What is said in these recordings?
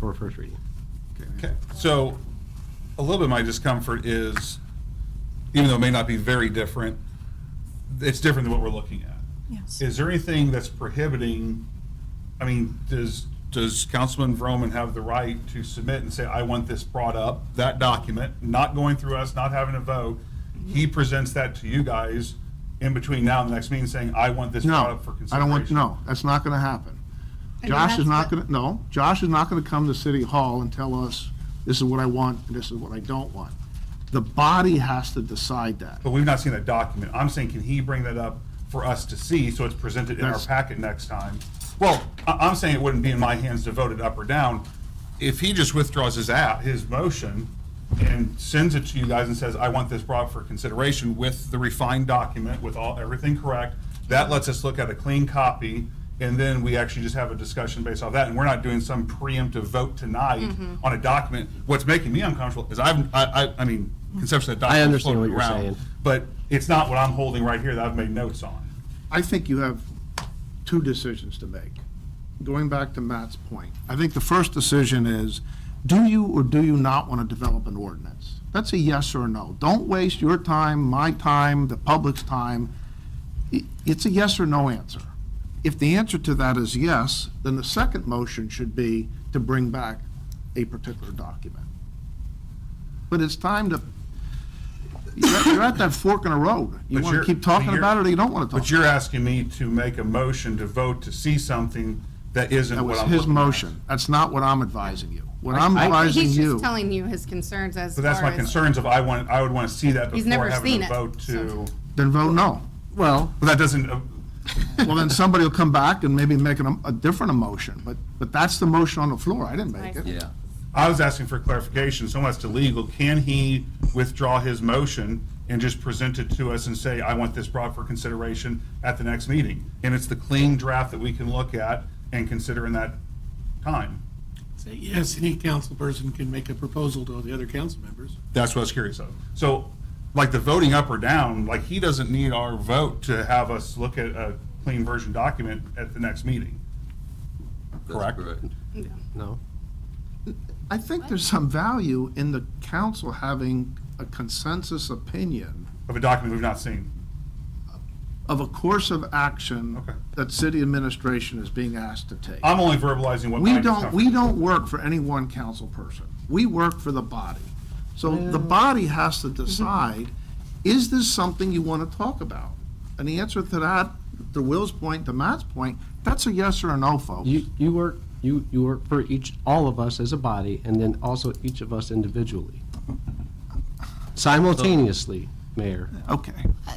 for first reading. Okay, so a little bit of my discomfort is, even though it may not be very different, it's different than what we're looking at. Yes. Is there anything that's prohibiting, I mean, does, does Councilman Vroman have the right to submit and say, I want this brought up, that document, not going through us, not having a vote? He presents that to you guys in between now and the next meeting saying, I want this brought No, up for I don't want, consideration. no, that's not gonna happen. mean, Josh is that's not what- gonna, no, Josh is not gonna come to City Hall and tell us, this is what I want, and this is what I don't want. The body has to decide that. But we've not seen that document. I'm saying, can he bring that up for us to see so it's presented in our That's- packet next time? Well, I, I'm saying it wouldn't be in my hands to vote it up or down. If he just withdraws his app, his motion, and sends it to you guys and says, I want this brought for consideration with the refined document, with all, everything correct, that lets us look at a clean copy, and then we actually just have a discussion based off that, and we're not doing some preemptive vote tonight on a document. What's making me uncomfortable is I've, I, I, I mean, conceptually, that I document's understand floated what you're around, saying. But it's not what I'm holding right here that I've made notes on. I think you have two decisions to make. Going back to Matt's point, I think the first decision is, do you or do you not want to develop an ordinance? That's a yes or a no. Don't waste your time, my time, the public's time. I- It's a yes or no answer. If the answer to that is yes, then the second motion should be to bring back a particular document. But it's time to, you're at- you're at that fork in the road. You But want to you're- keep but talking you're- about it or you don't want to talk about it. But you're asking me to make a motion to vote to see something that isn't That what was I'm his looking at. motion. That's not what I'm advising you. What I'm I- advising He's you, just telling you his concerns as So that's far my as- concerns of I want, I would want to see that He's before never having seen a it, vote to, so- then vote no. Well, but that doesn't, uh, Well, then somebody will come back and maybe make an- a different emotion, but, but that's the motion on the floor. I didn't make it. yeah. I was asking for clarification, so much to legal. Can he withdraw his motion and just present it to us and say, I want this brought for consideration at the next meeting? And it's the clean draft that we can look at and consider in that time. Say yes, any council person can make a proposal to all the other council members. That's what I was curious of. So, like the voting up or down, like he doesn't need our vote to have us look at a clean version document at the next meeting. Correct? No. I think there's some value in the council having a consensus opinion Of a document we've not seen. of a course of action Okay. that city administration is being asked to take. I'm only verbalizing what We my don't, discomfort. we don't work for any one council person. We work for the body. So the body has Mm-hmm. to decide, is this something you want to talk about? And the answer to that, to Will's point, to Matt's point, that's a yes or a no, folks. You, you work, you, you work for each, all of us as a body, and then also each of us individually. Simultaneously, Mayor. Okay. Uh,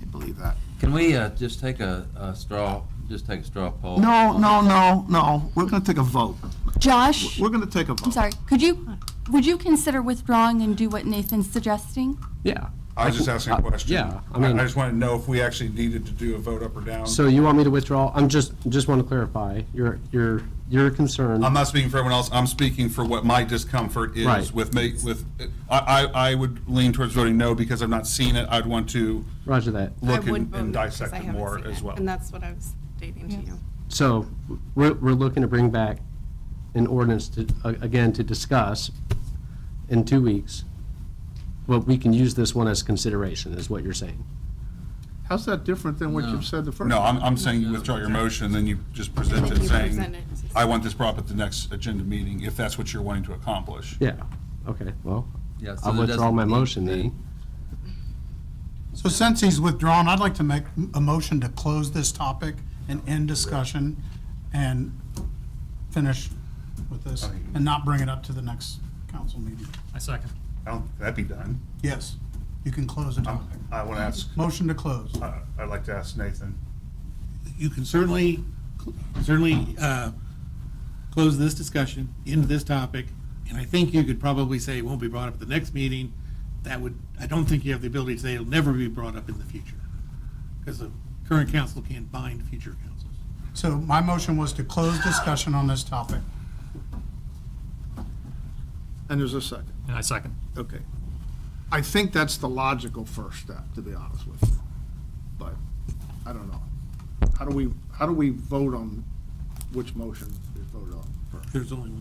I believe that. Can we uh, just take a a straw, just take a straw poll? No, no, no, no. We're going to take a vote. Josh, We're going to take a vote. I'm sorry, could you, would you consider withdrawing and do what Nathan's suggesting? Yeah. I was just asking a question. Yeah, I I mean, just wanted to know if we actually needed to do a vote up or down. so you want me to withdraw? I'm just, just want to clarify, your, your, your concern. I'm not speaking for everyone else. I'm speaking for what my discomfort is Right. with me, with, I, I, I would lean towards voting no because I've not seen it. I'd want to Roger that. I look would and vote and no, 'cause dissect I it haven't more seen as it, well. And that's what I was stating to you. So we're, we're looking to bring back an ordinance to, a- again, to discuss in two weeks. But we can use this one as consideration, is what you're saying. How's that different than what you've said the first? No, I'm, I'm saying you withdraw your motion, then you just present then it you saying, present it. I want this brought up at the next agenda meeting, if that's what you're wanting to accomplish. Yeah, okay, well, Yeah, so I'll there withdraw doesn't my need to motion be- then. So since he's withdrawn, I'd like to make a motion to close this topic and end discussion and finish with this and not bring it up to the next council meeting. I second. I don't- That'd be done. Yes, you can close the topic. I want to ask, Motion to close. uh, I'd like to ask Nathan. you can certainly, certainly uh, close this discussion, end this topic, and I think you could probably say it won't be brought up at the next meeting. That would, I don't think you have the ability to say it'll never be brought up in the future, because the current council can't bind future councils. So my motion was to close discussion on this topic. And there's a second. And I second. Okay. I think that's the logical first step, to be honest with you. But I don't know. How do we, how do we vote on which motion is voted on first? There's only one.